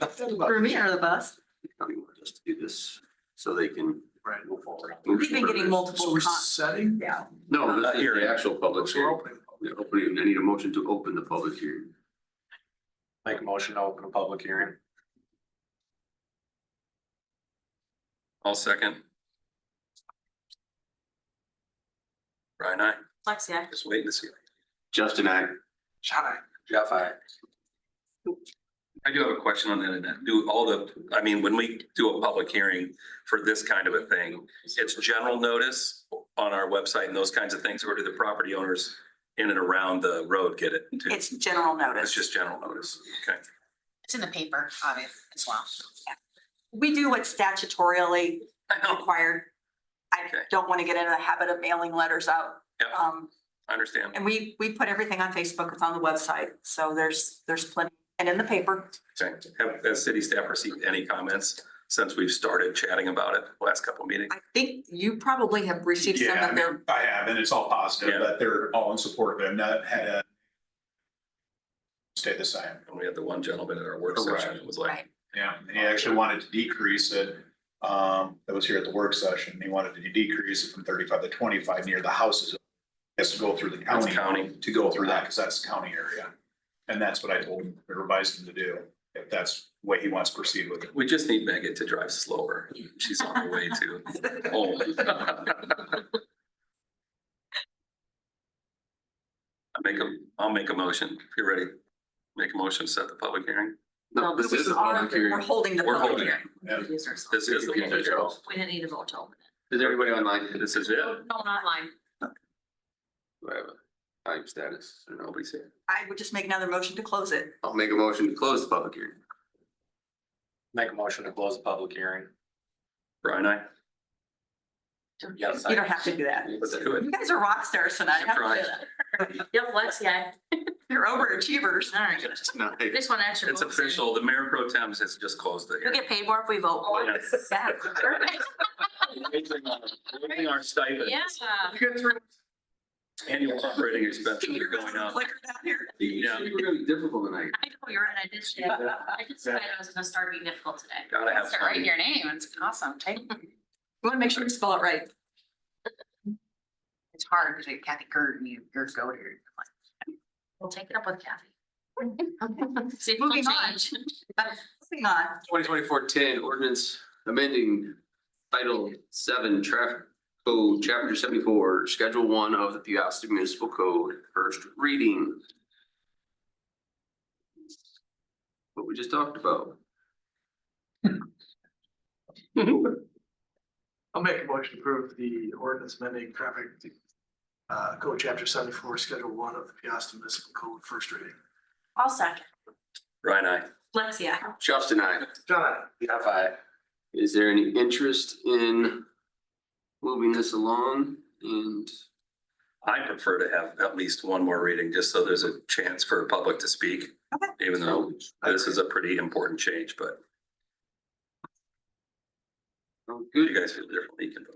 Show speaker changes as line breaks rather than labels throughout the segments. Uh,
For me or the bus?
County wanted us to do this so they can. Right. Move forward.
We've been getting multiple.
So we're
con-
setting,
Yeah.
No, not here, the actual public
so we're
hearing.
opening.
They're opening, I need a motion to open the public hearing.
Make a motion to open a public hearing.
I'll second. Brian, I
Lexi, I-
Just waiting to see.
Justin, I,
Shall I?
Jeff, I.
I do have a question on the internet. Do all the, I mean, when we do a public hearing for this kind of a thing, it's general notice on our website and those kinds of things, or do the property owners in and around the road get it too?
it's general notice.
It's just general notice. Okay.
It's in the paper, obviously, as well.
We do what's statutorily
I know,
required. I
Okay.
don't want to get into the habit of mailing letters out.
Yep.
Um,
I understand.
and we, we put everything on Facebook, it's on the website, so there's, there's plenty, and in the paper.
Okay. Have, has city staff received any comments since we've started chatting about it last couple of meetings?
I think you probably have received some
Yeah, I
of their,
mean, I have, and it's all positive,
Yeah.
that they're all in support of it, I've not had a stay the same,
And we had the one gentleman at our work session that was like,
Right.
yeah, and he actually wanted to decrease it, um, that was here at the work session, he wanted to decrease it from thirty-five to twenty-five near the houses. Has to go through the
that's
county,
county.
to go through that, because that's county area, and that's what I told him, I advised him to do, if that's what he wants to proceed with.
We just need Megan to drive slower. She's on her way to home. I make a, I'll make a motion. If you're ready, make a motion, set the public hearing.
no, this is a public
we're
hearing.
holding the
We're
public
holding it.
hearing.
Yeah.
This is the public hearing.
We didn't need a vote to open
Is everybody online?
This is it.
it. No, not mine.
Do I have a time status? Or Nobody's here.
I would just make another motion to close it.
I'll make a motion to close the public hearing.
Make a motion to close the public hearing.
Brian, I.
Yes.
You don't have to do that.
Let's do it.
You guys are rock stars tonight. Have to do that.
Yep, Lexi, I,
You're overachievers.
all right.
Just tonight.
This one extra.
It's
votes in.
official. The mayor pro tem has just closed the
You'll
hearing.
get paid more if we vote more.
Yeah.
Yeah.
Raising our- raising our stipend,
Yeah.
annual operating
Can
expenses
you
are going
remember
up.
clicker down here?
You
Yeah.
said you were gonna be difficult tonight.
I know, you're right, I did say, I just decided I was gonna start being difficult today.
Gotta have
Start writing
fun.
your name, it's awesome, Take-
We want to make sure we spell it right.
It's hard, because Kathy Gerd, and you, yours go to your. We'll take it up with Kathy. See, if
Moving
moving
on.
on.
Moving on.
Twenty twenty-four ten ordinance amending title seven traffic code, chapter seventy-four, schedule one of the Piasta Municipal Code, first reading. What we just talked about.
I'll make a motion to approve the ordinance amending traffic uh, code chapter seventy-four, schedule one of the Piasta Municipal Code, first reading.
I'll second.
Brian, I.
Lexi, I.
Justin, I,
John,
Jeff, I.
is there any interest in moving this along and
I prefer to have at least one more reading, just so there's a chance for the public to speak.
Okay.
Even though this is a pretty important change, but
Oh,
if
good?
you guys feel differently, you can vote.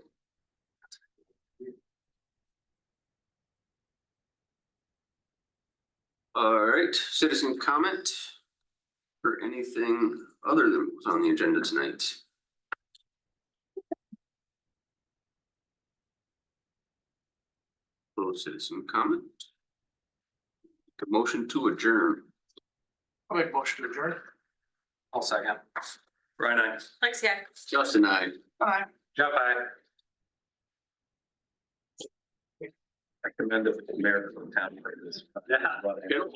All right, citizen comment or anything other than what was on the agenda tonight? Little citizen comment. The motion to adjourn.
I'll make a motion to adjourn.
I'll second.
Brian, I.
Lexi, I.
Justin, I.
Jeff, I.
I commend the mayor of the town for this.
Yeah.